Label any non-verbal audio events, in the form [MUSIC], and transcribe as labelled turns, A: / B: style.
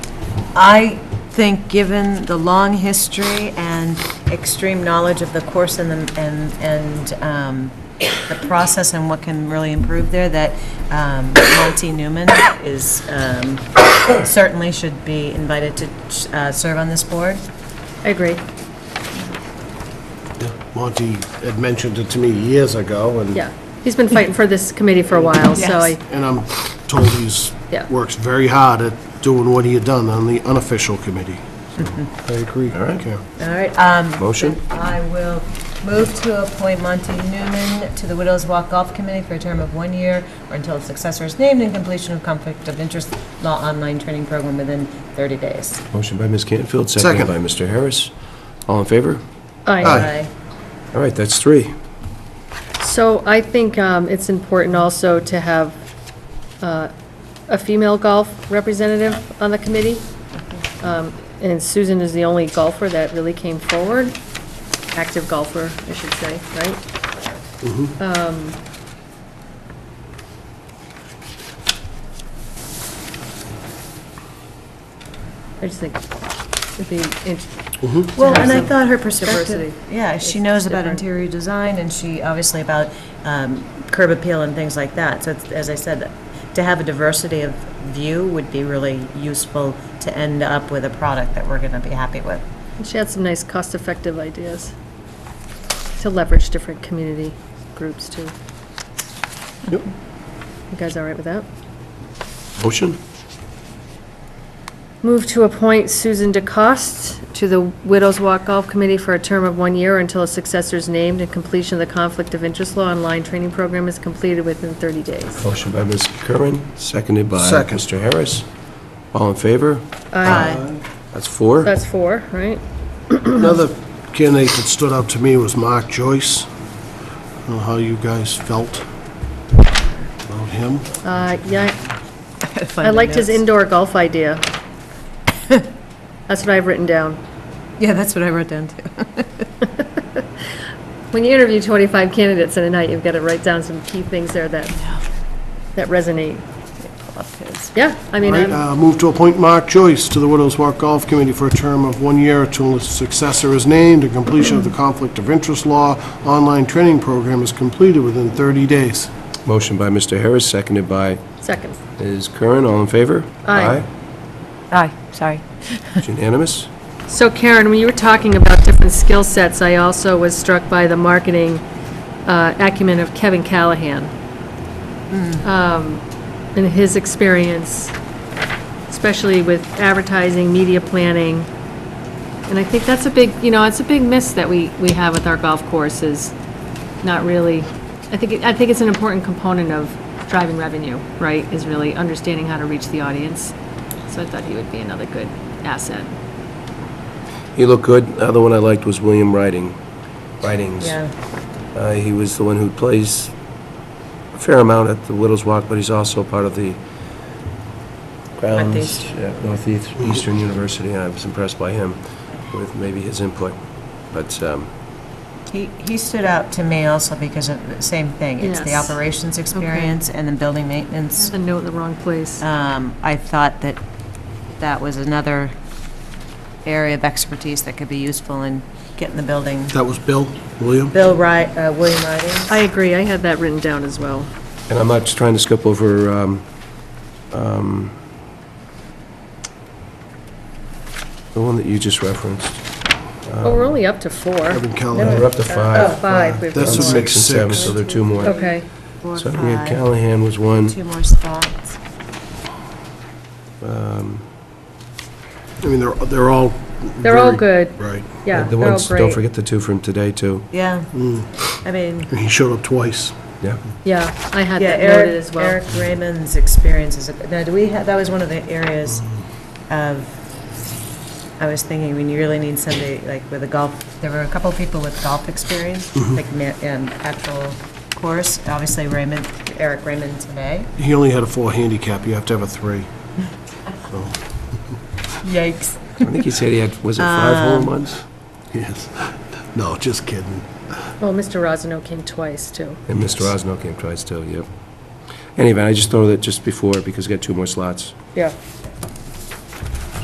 A: I think, given the long history and extreme knowledge of the course and, the- and, and um, the process and what can really improve there, that um, Monty Newman is, um, certainly should be invited to uh, serve on this board.
B: I agree.
C: Monty had mentioned it to me years ago, and...
B: Yeah. He's been fighting for this committee for a while, so I,
A: Yes.
C: And I'm told he's,
B: Yeah.
C: works very hard at doing what he had done on the unofficial committee.
B: [LAUGHS]
C: So, I agree. All right.
A: All right, um,
C: Motion?
A: I will move to appoint Monty Newman to the Widows Walk Golf Committee for a term of one year or until a successor is named and completion of conflict of interest law online training program within 30 days.
D: Motion by Ms. Cantfield,
C: Second.
D: seconded by Mr. Harris. All in favor?
B: I,
C: Aye.
D: All right, that's three.
B: so I think um, it's important also to have uh, a female golf representative on the committee. Um, And Susan is the only golfer that really came forward, active golfer, I should say, right? Um, I just think it'd be interesting.
A: Well, and I thought her perspective,
B: Diversity.
A: yeah, she knows about
B: different.
A: interior design and she obviously about um, curb appeal and things like that. So it's- as I said, to have a diversity of view would be really useful to end up with a product that we're going to be happy with.
B: She had some nice cost-effective ideas to leverage different community groups, too.
C: Yep.
B: You guys all right with that?
D: Motion?
B: Move to appoint Susan DeCoste to the Widows Walk Golf Committee for a term of one year until a successor is named and completion of the Conflict of Interest Law online training program is completed within 30 days.
D: Motion by Ms. Curran, seconded by
C: Second.
D: Mr. Harris. All in favor?
A: Aye.
D: That's four.
B: That's four, right?
C: Another candidate that stood out to me was Mark Joyce. I don't know how you guys felt about him.
B: Uh, Yeah, I liked his indoor golf idea. That's what I've written down.
A: Yeah, that's what I wrote down too.
B: When you interview 25 candidates in a night, you've got to write down some key things there that, that resonate. Yeah, I mean, um,
C: Right,
B: I'm-
C: uh, move to appoint Mark Joyce to the Widows Walk Golf Committee for a term of one year until his successor is named and completion of the Conflict of Interest Law online training program is completed within 30 days.
D: Motion by Mr. Harris, seconded by
B: second.
D: Ms. Curran. All in favor?
B: Aye.
A: Aye, sorry.
D: It's Unanimous?
B: So Karen, when you were talking about different skill sets, I also was struck by the marketing uh, acumen of Kevin Callahan. Um, And his experience, especially with advertising, media planning. And I think that's a big, you know, it's a big miss that we, we have with our golf course is not really, I think, it- I think it's an important component of driving revenue, right? Is really understanding how to reach the audience. So I thought he would be another good asset.
D: He looked good. The other one I liked was William Riding, Ridings.
A: Yeah,
D: Uh, He was the one who plays a fair amount at the Widows Walk, but he's also part of the grounds
A: Northeast.
D: at Northeastern University, and I was impressed by him with maybe his input. But, um,
A: he, he stood out to me also because of the same thing. It's the
B: Yes.
A: operations experience and the building maintenance.
B: A note in the wrong place.
A: Um, I thought that that was another area of expertise that could be useful in getting the building.
C: That was Bill, William?
A: Bill Wright, uh, William Riding.
B: I agree, I had that written down as well.
D: and I'm not just trying to skip over, um, um, the one that you just referenced.
B: Oh, we're only up to four.
C: Kevin
D: Uh,
C: Callahan.
D: We're up to
B: Oh,
D: five.
B: five. We've
C: That's
B: got
C: what
B: more.
C: makes
D: and seven,
C: six.
D: So there are two more.
B: Okay,
A: Four,
D: So we had
A: five,
D: Callahan was one.
A: two more spots.
C: I mean, they're, they're all...
B: they're all
C: very-
B: good,
C: Right.
B: yeah,
D: Uh, The
B: they're all
D: ones, don't
B: great.
D: forget the two from today, too.
A: Yeah, I mean,
C: And he showed up twice.
D: Yeah.
B: Yeah, I had
A: yeah,
B: that
A: Eric,
B: noted as well.
A: Eric Raymond's experience is, a- now, do we have, that was one of the areas of, I was thinking, when you really need somebody, like, with a golf, there were a couple of people with golf experience, like, ma- um, actual course, obviously Raymond, Eric Raymond today.
C: He only had a four handicap, you have to have a three. So,
A: Yikes.
D: I think he said he had, was it five home runs?
C: yes. No, just kidding.
B: Well, Mr. oh, Rosano came twice, too.
D: And Mr. Osno came twice, too, yep. Anyway, I just throw that just before, because we got two more slots.
B: Yeah.